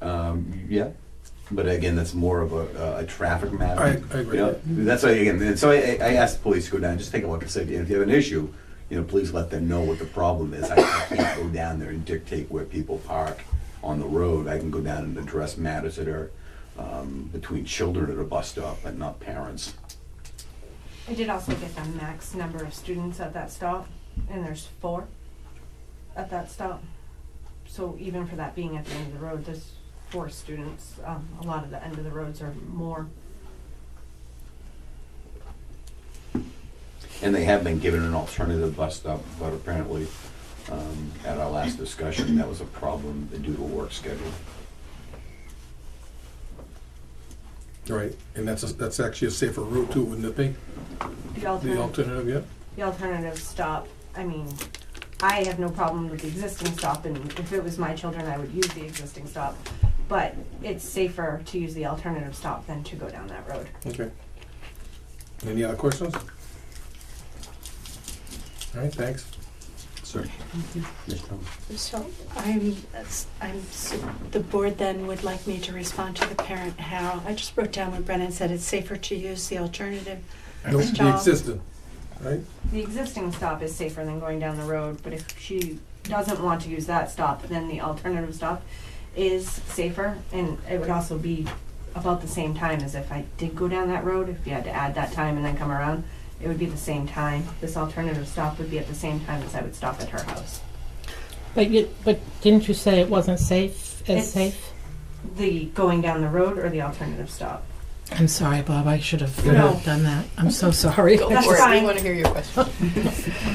Um, yeah, but again, that's more of a, a traffic matter. I- I agree. You know, that's why again. And so I, I asked the police to go down, just take a look and say, if you have an issue, you know, please let them know what the problem is. I can't go down there and dictate where people park on the road. I can go down and address matters that are um, between children at a bus stop, but not parents. I did also get the max number of students at that stop, and there's four at that stop. So even for that being at the end of the road, there's four students. Um, a lot of the end of the roads are more. And they have been given an alternative bus stop, but apparently, um, at our last discussion, that was a problem due to work schedule. Right, and that's, a- that's actually a safer route too, wouldn't it be? The The alternative, alternative, yeah? the alternative stop, I mean, I have no problem with the existing stop, and if it was my children, I would use the existing stop. But it's safer to use the alternative stop than to go down that road. Okay. Any other questions? All right, thanks. Sir. So I'm, I'm, so the board then would like me to respond to the parent how, I just wrote down when Brennan said it's safer to use the alternative. No, the Stop. existing, right? The existing stop is safer than going down the road, but if she doesn't want to use that stop, then the alternative stop is safer, and it would also be about the same time as if I did go down that road, if you had to add that time and then come around, it would be the same time. This alternative stop would be at the same time as I would stop at her house. But you, but didn't you say it wasn't safe, It's- as safe? The going down the road or the alternative stop? I'm sorry, Bob, I should have No. done that. I'm so sorry. Go That's for it. fine. We want to hear your question.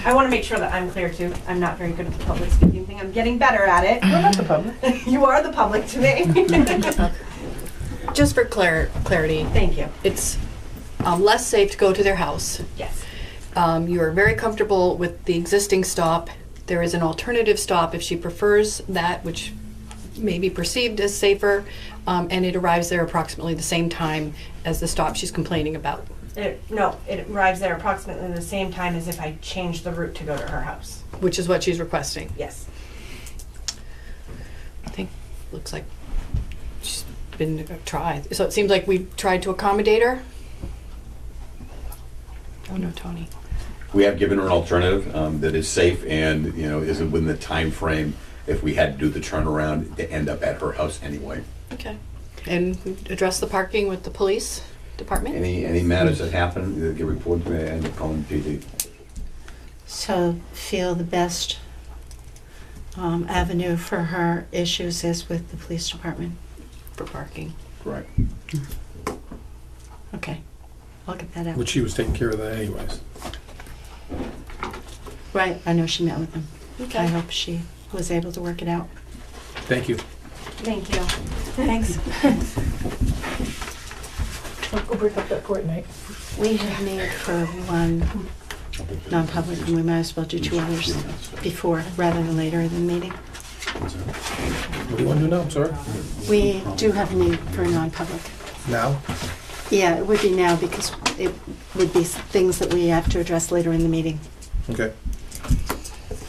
I wanna make sure that I'm clear too, I'm not very good at the public speaking thing, I'm getting better at it. We're not the public. You are the public to me. Just for clar- clarity, Thank you, it's um, less safe to go to their house. yes. Um, you are very comfortable with the existing stop. There is an alternative stop if she prefers that, which may be perceived as safer, um, and it arrives there approximately the same time as the stop she's complaining about. It, no, it arrives there approximately the same time as if I changed the route to go to her house. which is what she's requesting. Yes. I think looks like she's been tried. So it seems like we've tried to accommodate her. Oh no, Tony. We have given her an alternative um, that is safe and, you know, isn't within the time frame. if we had to do the turnaround to end up at her house anyway. Okay. And address the parking with the police department. Any, any matters that happen, uh, get reported to me and call the PD. So feel the best um, avenue for her issues is with the police department. for parking. Correct. Okay, I'll get that out. Which she was taking care of that anyways. Right, I know she met with them. I Okay. hope she was able to work it out. Thank you. Thank you. Thanks. Go break up that Fortnite. We have need for one non-public, and we might as well do two others before, rather than later in the meeting. What do you want to do now, I'm sorry? We do have need for a non-public. Now? Yeah, it would be now because it would be s- things that we have to address later in the meeting. Okay.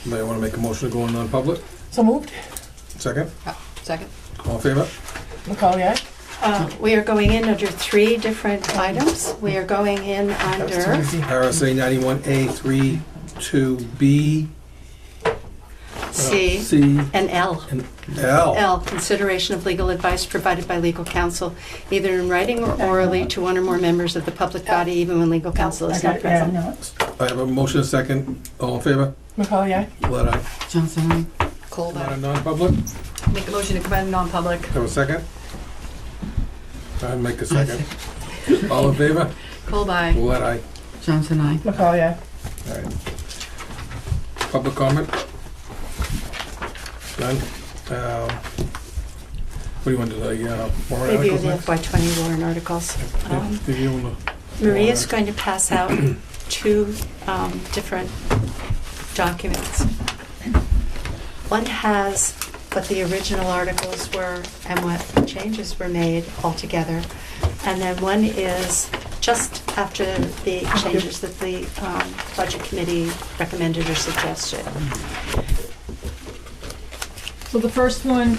Anybody want to make a motion to go in non-public? So moved. Second? Second. All in favor? Macaulay, aye? Uh, We are going in under three different items. We are going in That was too under easy. RSA ninety-one A three, two B, uh, C C, and L. and L. L, consideration of legal advice provided by legal counsel, either in writing or orally to one or more members of the public body, even when legal counsel I is got not it, yeah, present. no. I have a motion, a second. All in favor? Macaulay, aye? Let I Johnson, aye. Cold. come out of uh, non-public. Make a motion to come out of non-public. Have a second? I make a second. All in favor? Cold by. Let I. Johnson, aye. Macaulay, aye? All right. Public comment? None? Um, What do you want to do, the uh, warrant Review articles the next? FY twenty warrant articles. Um, Yeah, review and, uh, Maria's going to pass out two um, different documents. One has what the original articles were and what changes were made altogether. And then one is just after the changes that the um, Budget Committee recommended or suggested. So the first one